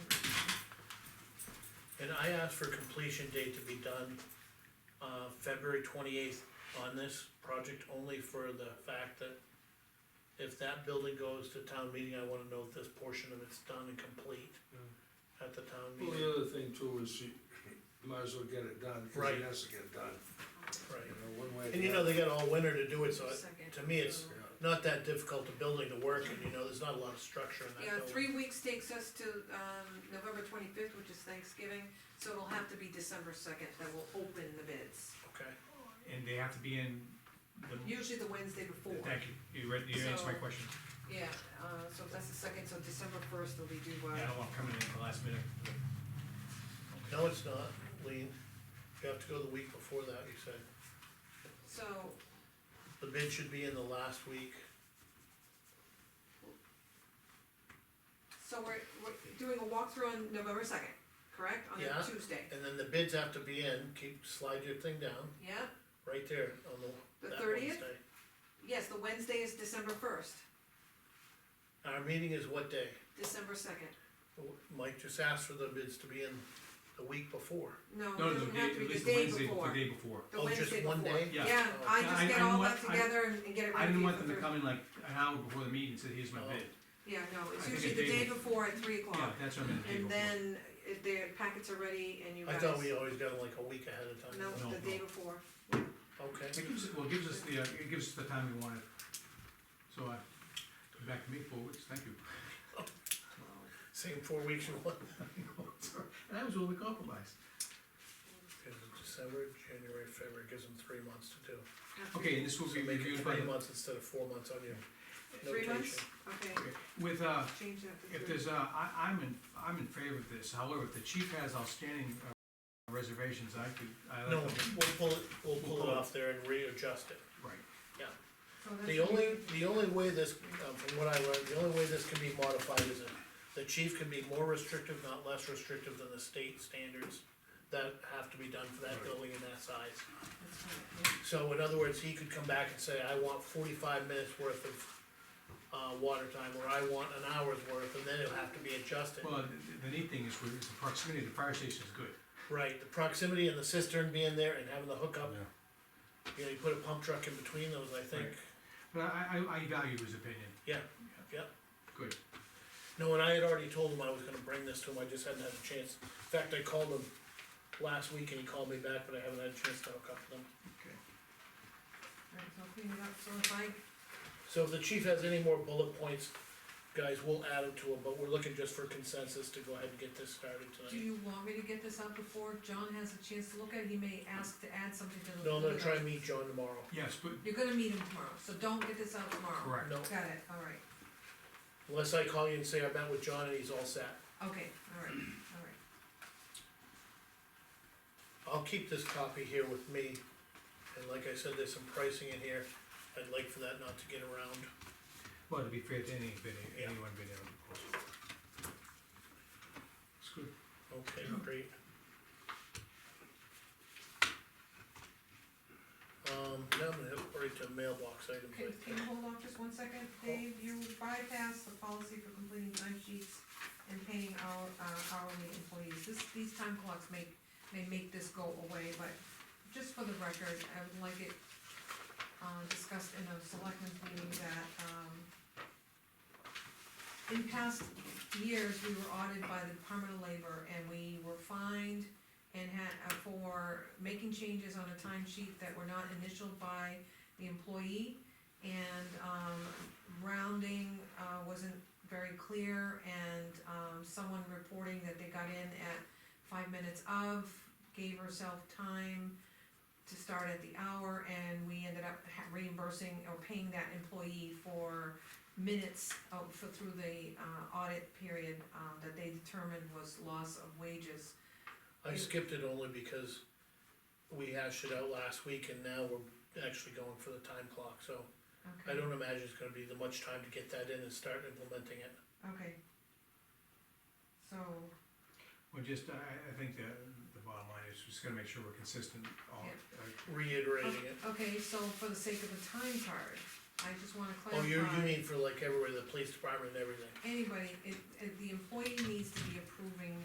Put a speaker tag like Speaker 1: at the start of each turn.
Speaker 1: And I asked for completion date to be done, uh, February twenty-eighth on this project, only for the fact that if that building goes to town meeting, I wanna know if this portion of it's done and complete at the town
Speaker 2: Well,
Speaker 1: meeting,
Speaker 2: the other thing too is you might as well get it done, because
Speaker 1: Right.
Speaker 2: it has to get done, you
Speaker 1: right?
Speaker 2: know, one way or
Speaker 1: And you
Speaker 2: the
Speaker 1: know,
Speaker 2: other.
Speaker 1: they got all winter to do it, so it-
Speaker 3: Second.
Speaker 1: to me, it's
Speaker 2: Yeah.
Speaker 1: not that difficult a building to work, and you know, there's not a lot of structure in that
Speaker 3: Yeah,
Speaker 1: building.
Speaker 3: three weeks takes us to, um, November twenty-fifth, which is Thanksgiving, so it'll have to be December second that we'll open the bids.
Speaker 1: Okay,
Speaker 4: And they have to be in the,
Speaker 3: Usually the Wednesday before.
Speaker 4: thank you, you read, you answered my
Speaker 3: So-
Speaker 4: question.
Speaker 3: Yeah, uh, so if that's the second, so December first, they'll be due by.
Speaker 4: Yeah, I don't want coming in at the last minute.
Speaker 1: no, it's not, Lean, you have to go the week before that, you said,
Speaker 3: So,
Speaker 1: the bid should be in the last week.
Speaker 3: so we're, we're doing a walkthrough on November second, correct? On
Speaker 1: Yeah.
Speaker 3: a Tuesday.
Speaker 1: And then the bids have to be in, keep, slide your thing down,
Speaker 3: Yeah,
Speaker 1: right there on the,
Speaker 3: The
Speaker 1: that
Speaker 3: 30th?
Speaker 1: Wednesday.
Speaker 3: yes, the Wednesday is December first,
Speaker 1: Our meeting is what day?
Speaker 3: December second.
Speaker 1: Mike just asked for the bids to be in the week before.
Speaker 3: No, it
Speaker 4: No, the
Speaker 3: doesn't have
Speaker 4: day,
Speaker 3: to
Speaker 4: at
Speaker 3: be the
Speaker 4: least the
Speaker 3: day
Speaker 4: Wednesday,
Speaker 3: before.
Speaker 4: the day before.
Speaker 3: The
Speaker 1: Oh, just
Speaker 3: Wednesday
Speaker 1: one
Speaker 3: before.
Speaker 1: day?
Speaker 4: Yeah.
Speaker 3: Yeah,
Speaker 1: Oh.
Speaker 3: I
Speaker 4: I-
Speaker 3: just get
Speaker 4: I
Speaker 3: all that
Speaker 4: want- I-
Speaker 3: together and and get it ready.
Speaker 4: I didn't want
Speaker 3: for
Speaker 4: them to
Speaker 3: Thursday.
Speaker 4: come in like an hour before the meeting and say, here's my
Speaker 1: Oh.
Speaker 4: bid.
Speaker 3: Yeah, no,
Speaker 4: I
Speaker 3: it's
Speaker 4: think
Speaker 3: usually
Speaker 4: a
Speaker 3: the
Speaker 4: day
Speaker 3: day before at three
Speaker 4: Yeah,
Speaker 3: o'clock,
Speaker 4: that's what I meant, the day
Speaker 3: and
Speaker 4: before.
Speaker 3: then uh, their packets are ready and you
Speaker 1: I
Speaker 3: guys.
Speaker 1: thought we always got them like a week ahead of time.
Speaker 3: No,
Speaker 4: No,
Speaker 3: the day
Speaker 4: no.
Speaker 3: before,
Speaker 1: Okay,
Speaker 4: It gives, well, it gives us the, uh, it gives us the time we wanted. So I, back to me forwards, thank you.
Speaker 1: same four weeks in one,
Speaker 4: And I was willing to compromise.
Speaker 1: Okay, December, January, February, gives them three months to do.
Speaker 4: Okay, and this will
Speaker 1: So
Speaker 4: be
Speaker 1: make it
Speaker 4: reviewed by,
Speaker 1: three
Speaker 4: the-
Speaker 1: months instead of four months on your
Speaker 3: three months,
Speaker 1: notation.
Speaker 3: okay,
Speaker 4: with, uh,
Speaker 3: change that to
Speaker 4: If
Speaker 3: three.
Speaker 4: there's, uh, I, I'm in, I'm in favor of this, however, if the chief has outstanding uh, reservations, I could, I
Speaker 1: No,
Speaker 4: like them.
Speaker 1: we'll pull it, we'll pull it off there and readjust it.
Speaker 4: Right,
Speaker 3: So that's
Speaker 1: The only, the only way this, uh, from what I learned, the only way this can be modified is if the chief can be more restrictive, not less restrictive than the state standards that have to be done for that
Speaker 4: Right.
Speaker 1: building and that size.
Speaker 3: that's fine,
Speaker 1: So in other words, he could come back and say, I want forty-five minutes worth of, uh, water time, or I want an hour's worth, and then it'll have to be adjusted.
Speaker 4: well, the, the neat thing is, with- is the proximity to the fire station is good.
Speaker 1: Right, the proximity and the cistern being there and having the hookup, you know, you put a pump truck in between those, I think,
Speaker 4: Right. But I, I, I value his opinion,
Speaker 1: yeah, yeah.
Speaker 4: good,
Speaker 1: No, and I had already told him I was gonna bring this to him, I just hadn't had a chance. In fact, I called him last week and he called me back, but I haven't had a chance to hook up with him.
Speaker 4: okay.
Speaker 3: alright, so clean it up, so if I,
Speaker 1: So if the chief has any more bullet points, guys, we'll add them to him, but we're looking just for consensus to go ahead and get this started
Speaker 3: do
Speaker 1: tonight.
Speaker 3: you want me to get this out before John has a chance to look at it, he may ask to add something to the.
Speaker 1: No, I'm gonna try and
Speaker 3: list.
Speaker 1: meet John tomorrow.
Speaker 4: Yes, but,
Speaker 3: You're gonna meet him tomorrow, so don't get this out tomorrow.
Speaker 4: correct,
Speaker 1: No,
Speaker 3: Got it, alright,
Speaker 1: unless I call you and say I met with John and he's all set.
Speaker 3: okay, alright, alright,
Speaker 1: I'll keep this copy here with me, and like I said, there's some pricing in here. I'd like for that not to get around.
Speaker 4: well, to be fair to any bid,
Speaker 1: Yeah.
Speaker 4: anyone bid in, of course. It's good.
Speaker 1: Okay, great. Um, now I'm gonna head right to mailbox items, I
Speaker 3: can, can
Speaker 1: think.
Speaker 3: you hold off just one second, Dave, you bypassed the policy for completing time sheets and paying our, uh, hourly employees, this, these time clocks make, may make this go away, but just for the record, I would like it, uh, discussed in a selectmen's meeting that, um, in past years, we were audited by the Department of Labor, and we were fined and had, uh, for making changes on a timesheet that were not initialed by the employee, and, um, rounding, uh, wasn't very clear, and, um, someone reporting that they got in at five minutes of, gave herself time to start at the hour, and we ended up ha- reimbursing or paying that employee for minutes of, for, through the, uh, audit period, uh, that they determined was loss of wages.
Speaker 1: I skipped it only because we hashed it out last week and now we're actually going for the time clock, so I
Speaker 3: Okay.
Speaker 1: don't imagine it's gonna be that much time to get that in and start implementing it.
Speaker 3: Okay. So,
Speaker 4: Well, just, I, I think the, the bottom line is, just gotta make sure we're consistent, all, uh,
Speaker 1: Reiterating it.
Speaker 3: okay, so for the sake of the time card, I just wanna
Speaker 1: Oh, you, you
Speaker 3: clarify,
Speaker 1: mean for like everywhere, the police department and everything.
Speaker 3: anybody, it, it, the employee needs to be approving